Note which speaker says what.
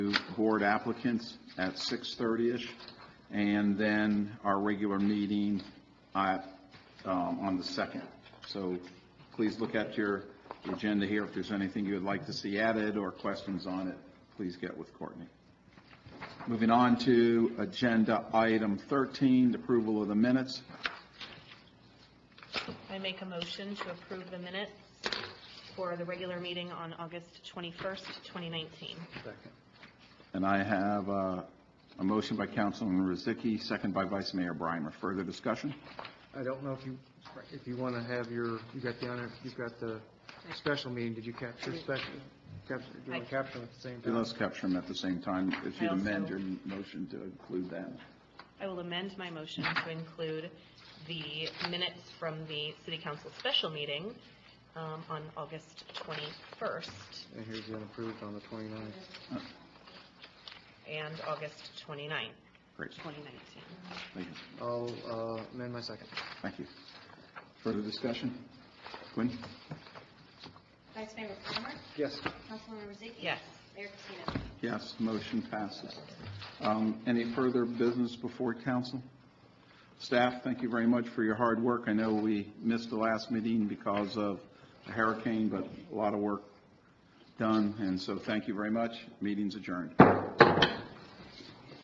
Speaker 1: board applicants at 6:30-ish, and then our regular meeting at, um, on the 2nd. So please look at your agenda here. If there's anything you would like to see added or questions on it, please get with Courtney. Moving on to Agenda Item 13, the approval of the minutes.
Speaker 2: I make a motion to approve the minutes for the regular meeting on August 21st, 2019.
Speaker 1: And I have uh, a motion by Councilman Rozicki, second by Vice Mayor Brimer. Further discussion?
Speaker 3: I don't know if you, if you want to have your, you got the honor, you've got the special meeting, did you capture special? Capture, do you want to capture them at the same
Speaker 1: Do
Speaker 3: time?
Speaker 1: Let's capture them at the same time. If you'd
Speaker 2: I also-
Speaker 1: amend your motion to include that.
Speaker 2: I will amend my motion to include the minutes from the city council special meeting um, on August 21st
Speaker 3: And here's the unapproved on the 29th.
Speaker 2: and August 29th,
Speaker 1: Great.
Speaker 2: 2019.
Speaker 1: Thank you.
Speaker 3: I'll uh, amend my second.
Speaker 1: Thank you. Further discussion? Quinn?
Speaker 4: Vice Mayor Palmer?
Speaker 3: Yes.
Speaker 4: Councilwoman Rozicki?
Speaker 2: Yes.
Speaker 4: Mayor Patino?
Speaker 1: Yes, motion passes. Um, Any further business before council? Staff, thank you very much for your hard work. I know we missed the last meeting because of a hurricane, but a lot of work done, and so thank you very much. Meeting's adjourned.